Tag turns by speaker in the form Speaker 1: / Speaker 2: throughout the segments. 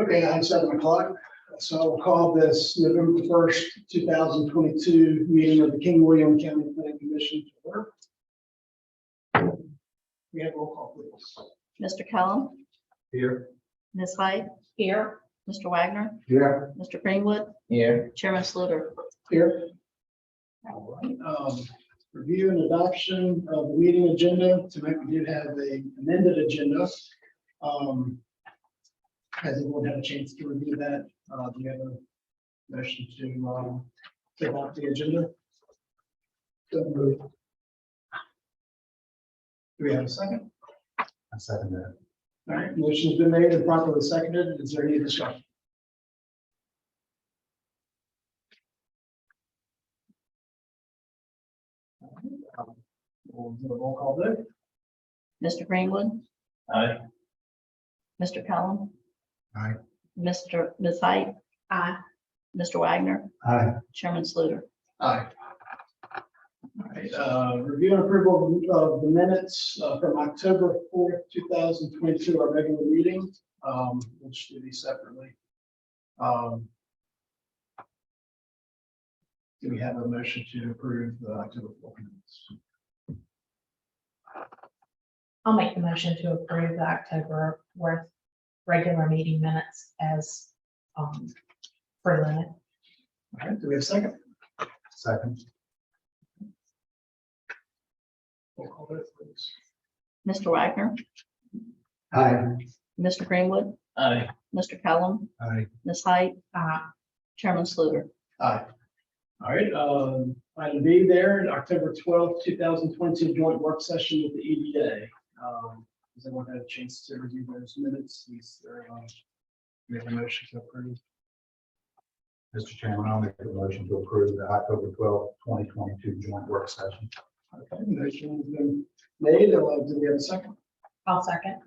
Speaker 1: Okay, now it's seven o'clock, so I'll call this November first, two thousand twenty-two meeting of the King William County Planning Commission to order. We have roll call, please.
Speaker 2: Mr. Kellum,
Speaker 3: Here.
Speaker 2: Ms. White. Here. Mr. Wagner,
Speaker 3: Here.
Speaker 2: Mr. Greenwood,
Speaker 3: Here.
Speaker 2: Chairman Sluter.
Speaker 1: Here. All right, um, review and adoption of the meeting agenda. Tonight we did have a amended agenda. Um, Has everyone had a chance to review that? Uh, do you have a motion to, um, to adopt the agenda? So moved. Do we have a second?
Speaker 3: I second that.
Speaker 1: All right, motion's been made and properly seconded. Is there any discussion? Um, We'll do a roll call vote.
Speaker 2: Mr. Greenwood,
Speaker 3: Aye.
Speaker 2: Mr. Kellum.
Speaker 3: Aye.
Speaker 2: Mr. Ms. White. Aye. Mr. Wagner,
Speaker 3: Aye.
Speaker 2: Chairman Sluter.
Speaker 1: Aye. All right, uh, review and approval of the minutes uh, from October fourth, two thousand twenty-two, our regular meeting, um, which do these separately. Um, Do we have a motion to approve the October fourth minutes?
Speaker 4: I'll make the motion to approve the October fourth regular meeting minutes as um presented.
Speaker 1: All right, do we have a second?
Speaker 3: Second.
Speaker 1: Roll call vote, please.
Speaker 2: Mr. Wagner,
Speaker 3: Aye.
Speaker 2: Mr. Greenwood,
Speaker 3: Aye.
Speaker 2: Mr. Kellum,
Speaker 3: Aye.
Speaker 2: Ms. White,
Speaker 4: Uh,
Speaker 2: Chairman Sluter.
Speaker 1: Aye. All right, um, item B there, in October twelfth, two thousand twenty, joint work session with the EDA. Um, Does anyone have a chance to review those minutes? These are, um, we have a motion to approve.
Speaker 3: Mr. Chairman, I'll make a motion to approve the October twelfth, twenty twenty-two joint work session.
Speaker 1: Okay, motion has been made. Uh, Do we have a second?
Speaker 4: I'll second.
Speaker 1: All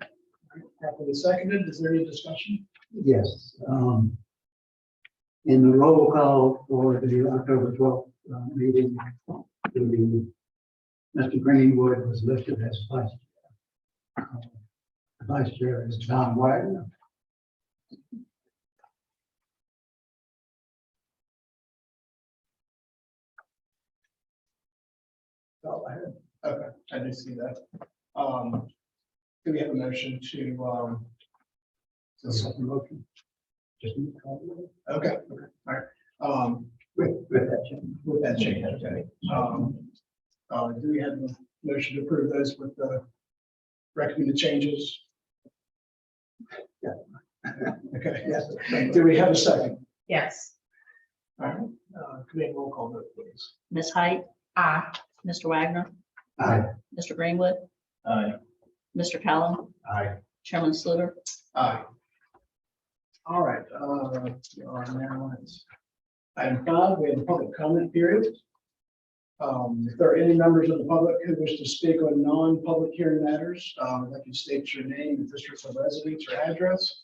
Speaker 1: right, Properly seconded. Is there any discussion?
Speaker 5: Yes, um, in the roll call for the October twelfth, uh, meeting, the, Mr. Greenwood was listed as vice. chair. The Vice chair is John Wagner.
Speaker 1: Oh, I had- Okay, I did see that. Um, Do we have a motion to, um, to second motion?
Speaker 5: Just need to call it.
Speaker 1: Okay, okay, all right. Um,
Speaker 5: With, with that change.
Speaker 1: with that change, okay. Um, uh, do we have a motion to approve those with the recommended changes? Yeah. Okay, yes. Do we have a second?
Speaker 4: Yes.
Speaker 1: All right, uh, could we have a roll call vote, please?
Speaker 2: Ms. Height,
Speaker 4: Aye.
Speaker 2: Mr. Wagner,
Speaker 5: Aye.
Speaker 2: Mr. Greenwood,
Speaker 3: Aye.
Speaker 2: Mr. Kellum,
Speaker 3: Aye.
Speaker 2: Chairman Sluter.
Speaker 1: Aye. All right, uh, we are now at item five, we have a public comment period. Um, if there are any members of the public who wish to speak on non-public hearing matters, um, that can state your name, the district of residence or address.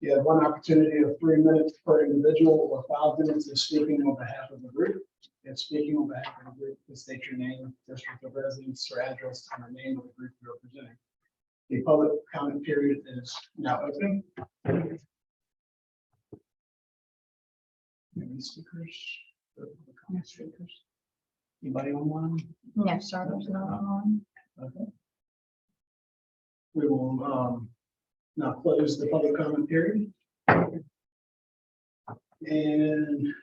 Speaker 1: You have one opportunity of three minutes per individual or five minutes of speaking on behalf of the group. If speaking on behalf of the group, please state your name, district of residence or address, and the name of the group you're representing. The public comment period is now open. Any speakers? Comment speakers? Anybody online?
Speaker 2: No, sir,
Speaker 1: there's
Speaker 3: Uh,
Speaker 1: none Okay. We will um, now close the public comment period. And